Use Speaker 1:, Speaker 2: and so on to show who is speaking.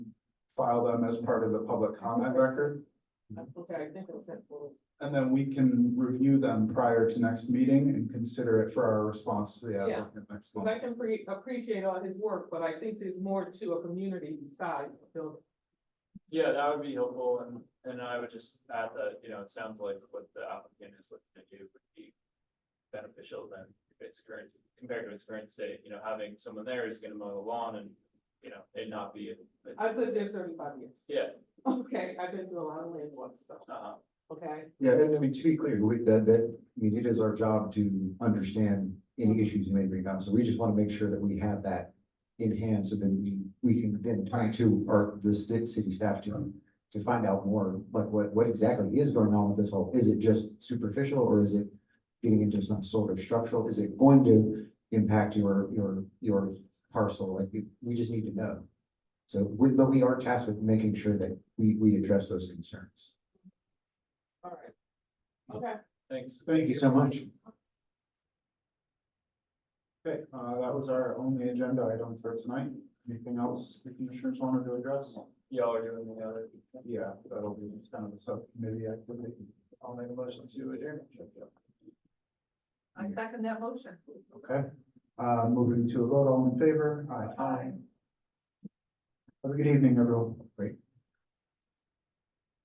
Speaker 1: file them as part of the public comment record.
Speaker 2: Okay, I think it was sent forward.
Speaker 1: And then we can review them prior to next meeting and consider it for our response to the
Speaker 2: Yeah.
Speaker 1: applicant next
Speaker 2: Because
Speaker 1: month.
Speaker 2: I can pre- appreciate all his work, but I think there's more to a community besides the building.
Speaker 3: Yeah, that would be helpful, and, and I would just add that, you know, it sounds like what the applicant is looking to do would be beneficial than if it's current, compared to its current state, you know, having someone there who's gonna mow the lawn and, you know, it not be. a-
Speaker 2: I've lived there thirty-five years.
Speaker 3: Yeah,
Speaker 2: Okay, I've been through a lot of land wars, so,
Speaker 3: uh,
Speaker 2: okay,
Speaker 4: Yeah, and I mean, to be clear, we, that, that, I mean, it is our job to understand any issues you may bring up, so we just wanna make sure that we have that in hand, so then we, we can then turn to, or the ci- city staff to, to find out more, like, what, what exactly is going on with this whole, is it just superficial, or is it getting into some sort of structural, is it going to impact your, your, your parcel, like, we- we just need to know. So, we, but we are tasked with making sure that we, we address those concerns.
Speaker 2: all right. Okay,
Speaker 3: thanks.
Speaker 4: Thank you so much.
Speaker 1: Okay, uh, that was our only agenda item for tonight. Anything else the commissioners wanted to address?
Speaker 3: Y'all are doing the other.
Speaker 1: Yeah, that'll be kind of a subcommittee activity.
Speaker 3: I'll make a motion to adjourn.
Speaker 5: I second that motion.
Speaker 1: Okay, uh, moving to a vote, all in favor? Aye. Have a good evening, everyone.
Speaker 4: Great.